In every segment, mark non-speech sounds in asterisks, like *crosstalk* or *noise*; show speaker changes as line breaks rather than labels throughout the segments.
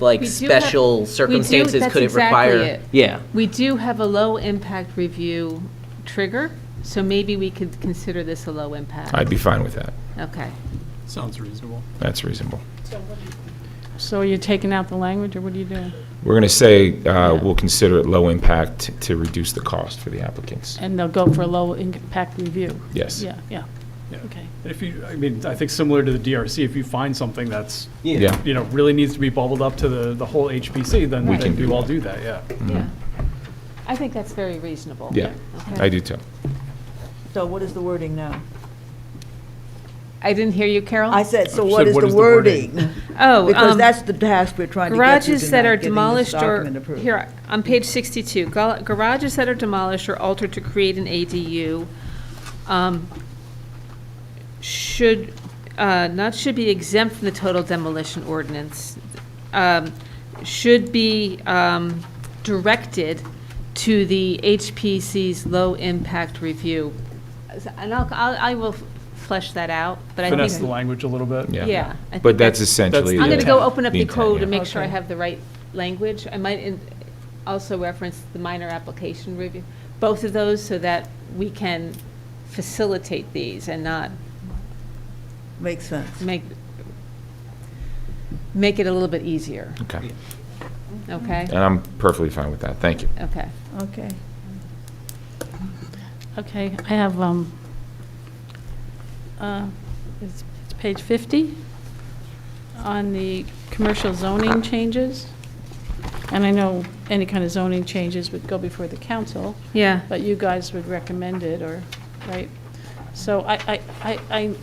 like
We do have-
special
we do-
circumstances
that's
could it
exactly
require?
it.
Yeah.
We do have a low-impact review trigger, so maybe we could consider this a low impact.
I'd be fine with that.
Okay.
Sounds reasonable.
That's reasonable.
So are you taking out the language, or what are you doing?
We're going to say, uh,
Yeah.
we'll consider it low impact to reduce the cost for the applicants.
And they'll go for a low impact review?
Yes.
Yeah, yeah,
Yeah.
okay.
If you, I mean, I think similar to the DRC, if you find something that's,
Yeah.
you know, really needs to be bubbled up to the, the whole HPC, then
We can
then we
do
will
that.
do that, yeah.
Yeah. I think that's very reasonable.
Mm-hmm. Yeah,
Okay.
I do too.
So what is the wording now?
I didn't hear you, Carol.
I said, so
You
what
said,
is
what
the
is the wording?
wording?
*laughs* Oh,
Because
um,
that's the task we're trying to get to
Garages that are
tonight, getting this
demolished or,
document approved.
here, on page 62, gal- garages that are demolished or altered to create an ADU um, should, uh, not should be exempt from the total demolition ordinance, um, should be um, directed to the HPC's low-impact review. And I'll, I'll- I will flesh that out, but I think.
Finesse the language a little bit.
Yeah.
Yeah. I think
But that's
that's-
essentially.
I'm going to
the-
go open up
the
the
intent,
code
yeah.
and make sure I
Okay.
have the right language. I might in- also reference the minor application review, both of those, so that we can facilitate these and not
Makes sense.
make, make it a little bit easier,
Okay,
okay?
and I'm perfectly fine with that, thank you.
Okay.
Okay.
Okay, I have, um, uh, it's it's page 50 on the commercial zoning changes. And I know any kind of zoning changes would go before the council.
Yeah.
But you guys would recommend it, or, right? So I, I, I I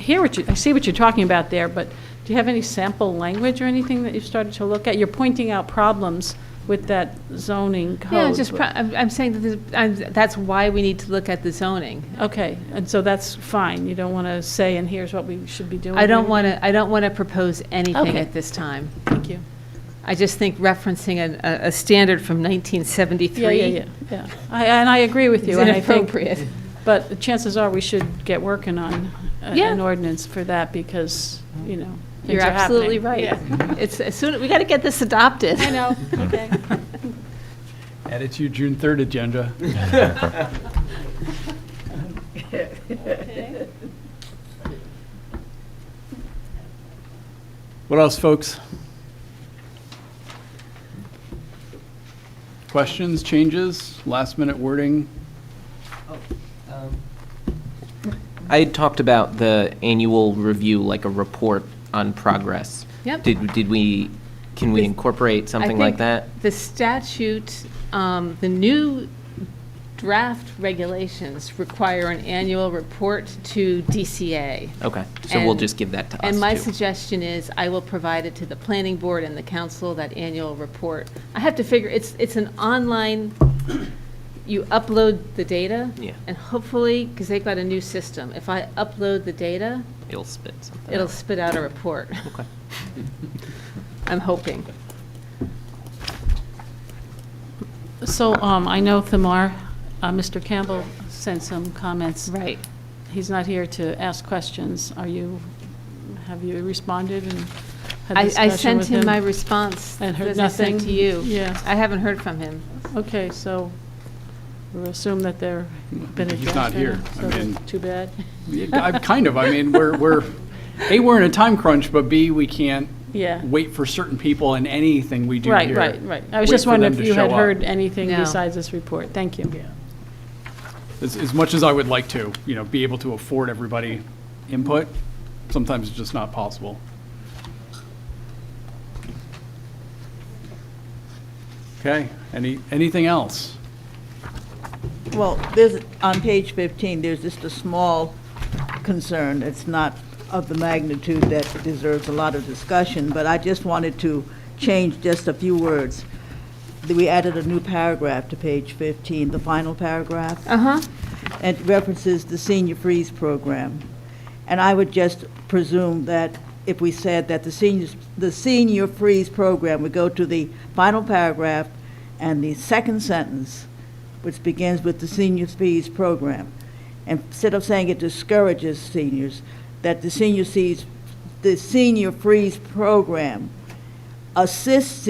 hear what you, I see what you're talking about there, but do you have any sample language or anything that you've started to look at? You're pointing out problems with that zoning code.
Yeah, just, pro- I'm I'm saying that this- I'm- that's why we need to look at the zoning.
Okay, and so that's fine, you don't want to say, and here's what we should be doing?
I don't want to, I don't want to propose anything
Okay.
at this time.
Thank you.
I just think referencing an- a, a standard from 1973
Yeah, yeah, yeah, yeah. I- And I agree with
is
you, and I think,
inappropriate.
but the chances are, we should get working on a-
Yeah.
an ordinance for that, because, you know, things
You're
are
absolutely
happening.
right. *laughs* It's, as soon, we got to get this adopted. *laughs*
I know, okay.
Add it to your June 3rd agenda.
*laughs*
What else, folks? Questions, changes, last-minute wording?
I had talked about the annual review, like a report on progress.
Yep.
Did, did we, can we
This-
incorporate something like that?
The statute, um, the new draft regulations require an annual report to DCA.
Okay, so we'll
And-
just give that to us,
And my
too.
suggestion is, I will provide it to the planning board and the council, that annual report. I have to figure, it's, it's an online, you upload the data.
Yeah.
And hopefully, because they've got a new system, if I upload the data,
It'll spit something.
it'll
out.
spit out a report.
Okay.
*laughs* I'm hoping.
So um, I know Thamar, uh, Mr. Campbell sent some comments.
Right.
He's not here to ask questions. Are you, have you responded and had a
I, I
discussion
sent
with
him my response.
And heard
that I sent
nothing?
to you.
Yeah.
I haven't heard from him.
Okay, so we'll assume that there been a
He's not
draft
here.
now,
I
so
mean-
that's Too bad.
I, kind of, I mean, we're, we're, A, we're in a time crunch, but B, we can't
Yeah.
wait for certain people in anything we do
Right,
here.
right, right. I was
Wait
just
for them
wondering if
to
you had
show up.
heard anything
No.
besides this report. Thank you.
As, as much as I would like to, you know, be able to afford everybody input, sometimes it's just not possible. Okay, any, anything else?
Well, there's, on page 15, there's just a small concern. It's not of the magnitude that deserves a lot of discussion, but I just wanted to change just a few words. We added a new paragraph to page 15, the final paragraph.
Uh-huh.
It references the senior freeze program. And I would just presume that if we said that the seniors, the senior freeze program would go to the final paragraph and the second sentence, which begins with the senior freeze program. Instead of saying it discourages seniors, that the senior sees, the senior freeze program assists